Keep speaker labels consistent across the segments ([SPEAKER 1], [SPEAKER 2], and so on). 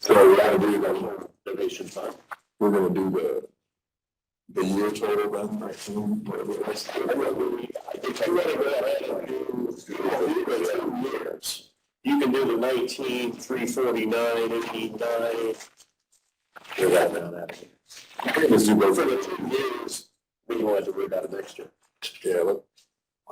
[SPEAKER 1] So what I do is I'm gonna donation fund, we're gonna do the. The year total then, I assume, whatever it is. I think I read it, I had to do, you can do two years. You can do the nineteen, three forty-nine, eighty-nine. Figure that one out. I think it's due both. For the two years, we don't have to worry about it next year.
[SPEAKER 2] Yeah, but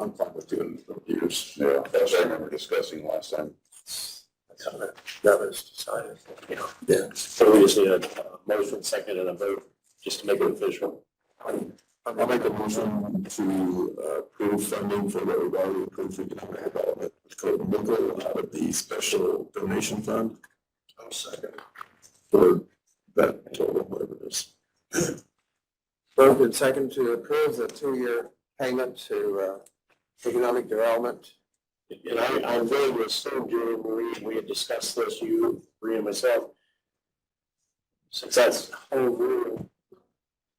[SPEAKER 2] I'm fine with doing it for years. Yeah, as I remember discussing last time.
[SPEAKER 1] That's how that- That was decided, you know.
[SPEAKER 2] Yeah.
[SPEAKER 1] So we just need a a motion, second, and a vote, just to make it official.
[SPEAKER 2] Um, I'll make a motion to uh, approve funding for the O'Reilly Improved Economic Development with Clayton Bickle out of the special donation fund. I'll second. For that total, whatever it is.
[SPEAKER 3] Moved and second to approve the two-year payment to uh, economic development.
[SPEAKER 1] And I, I'm going to assume, Julie Marie, we had discussed this, you, Marie and myself. Since that's whole rule,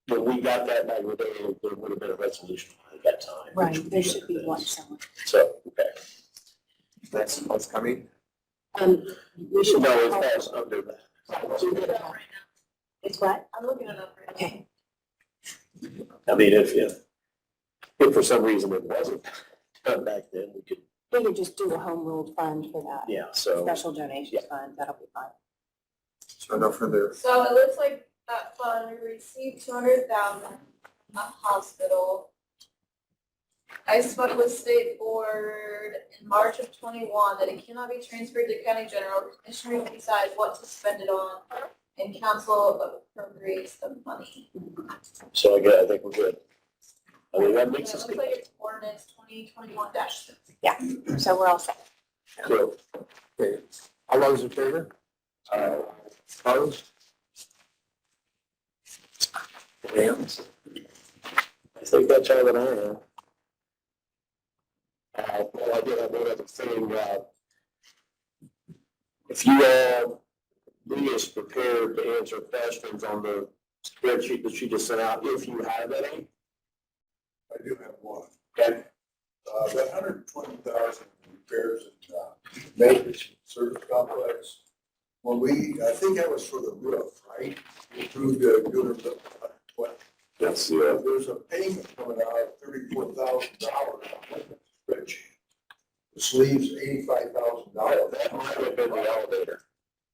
[SPEAKER 1] when we got that back in the day, there would have been a resolution at that time. which
[SPEAKER 4] Right,
[SPEAKER 1] we
[SPEAKER 4] there should be
[SPEAKER 1] did.
[SPEAKER 4] one somewhere.
[SPEAKER 1] So, okay.
[SPEAKER 3] That's what's coming.
[SPEAKER 4] Um, we
[SPEAKER 1] So
[SPEAKER 4] should.
[SPEAKER 1] now it falls under that.
[SPEAKER 4] It's what? I'm looking it up. Okay,
[SPEAKER 1] I mean, if, if, if for some reason it wasn't done back then, we could,
[SPEAKER 4] we could just do a home rule fund for that,
[SPEAKER 1] yeah, so.
[SPEAKER 4] special donations fund, that'll be fine.
[SPEAKER 3] So no further.
[SPEAKER 5] So it looks like that fund received two hundred thousand, a hospital. I spoke with state board in March of twenty-one that it cannot be transferred to county general, commissioner will decide what to spend it on, and council appropriates the money.
[SPEAKER 1] So I get, I think we're good. I mean, that
[SPEAKER 5] And
[SPEAKER 1] makes
[SPEAKER 5] It
[SPEAKER 1] us
[SPEAKER 5] looks like it's ordinance twenty twenty-one dash six.
[SPEAKER 4] So we're all set.
[SPEAKER 1] good.
[SPEAKER 3] Okay. All those in favor?
[SPEAKER 1] Uh,
[SPEAKER 3] Opposed?
[SPEAKER 1] I think that's all that I have. Uh, well, I did have one other thing, uh, if you all, Lee is prepared to answer questions on the spreadsheet that she just sent out, if you have any.
[SPEAKER 6] I do have one.
[SPEAKER 1] Okay.
[SPEAKER 6] Uh, that hundred and twenty thousand repairs and, uh, maintenance service complex. When we, I think that was for the roof, right? We approved the good roof. What,
[SPEAKER 2] That's, yeah.
[SPEAKER 6] there's a payment coming out of thirty-four thousand dollars on that spreadsheet. This leaves eighty-five thousand dollars.
[SPEAKER 1] That might have been the elevator.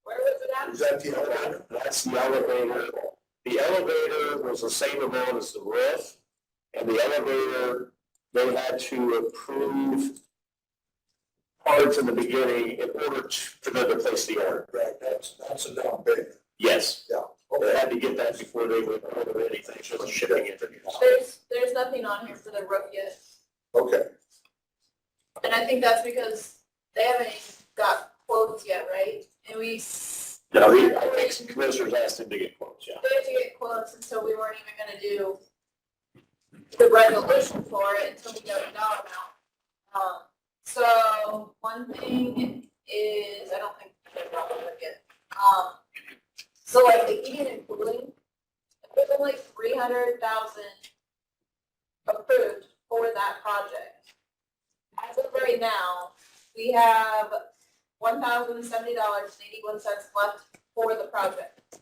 [SPEAKER 5] Where was it at?
[SPEAKER 6] Is that the elevator?
[SPEAKER 1] That's the elevator. The elevator was the same amount as the roof, and the elevator, they had to approve parts in the beginning in order to, for them to place the order.
[SPEAKER 6] Right, that's, that's a down payment.
[SPEAKER 1] Yes.
[SPEAKER 6] Yeah.
[SPEAKER 1] They had to get that before they would order anything, so the shipping interviews.
[SPEAKER 5] There's, there's nothing on here for the roof yet.
[SPEAKER 6] Okay,
[SPEAKER 5] And I think that's because they haven't even got quotes yet, right? And we, s-
[SPEAKER 1] No, he, I think some commissioners asked him to get quotes, yeah.
[SPEAKER 5] they had to get quotes, and so we weren't even gonna do the resolution for it until we got a dollar amount. Um, so one thing is, I don't think they're probably gonna get, um, so like the heating and cooling, there's only three hundred thousand approved for that project. As of right now, we have one thousand seventy dollars and eighty-one cents left for the project.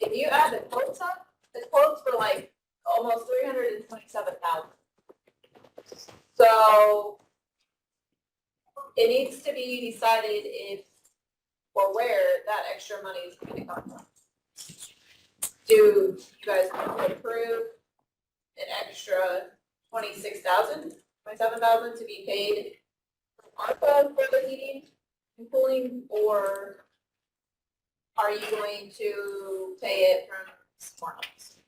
[SPEAKER 5] If you add the quotes up, the quotes were like almost three hundred and twenty-seven thousand. So it needs to be decided if or where that extra money is going to come from. Do you guys want to approve an extra twenty-six thousand, twenty-seven thousand to be paid from ARPA for the heating and cooling, or are you going to pay it from somewhere else?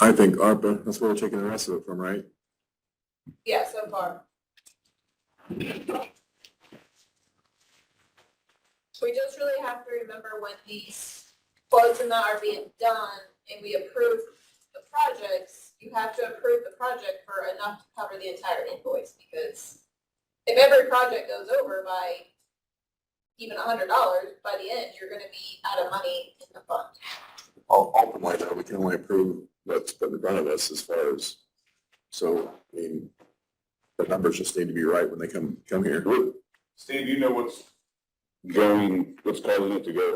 [SPEAKER 2] I think ARPA, that's where we're taking the rest of it from, right?
[SPEAKER 5] Yeah, so far. We just really have to remember when these quotes and that are being done and we approve the projects, you have to approve the project for enough to cover the entire invoice because if every project goes over by even a hundred dollars, by the end, you're gonna be out of money in the fund.
[SPEAKER 2] Ul- Ultimately, though, we can only approve what's put in front of us as far as, so, I mean, the numbers just need to be right when they come, come here.
[SPEAKER 7] Steve, you know what's going, what's causing it to go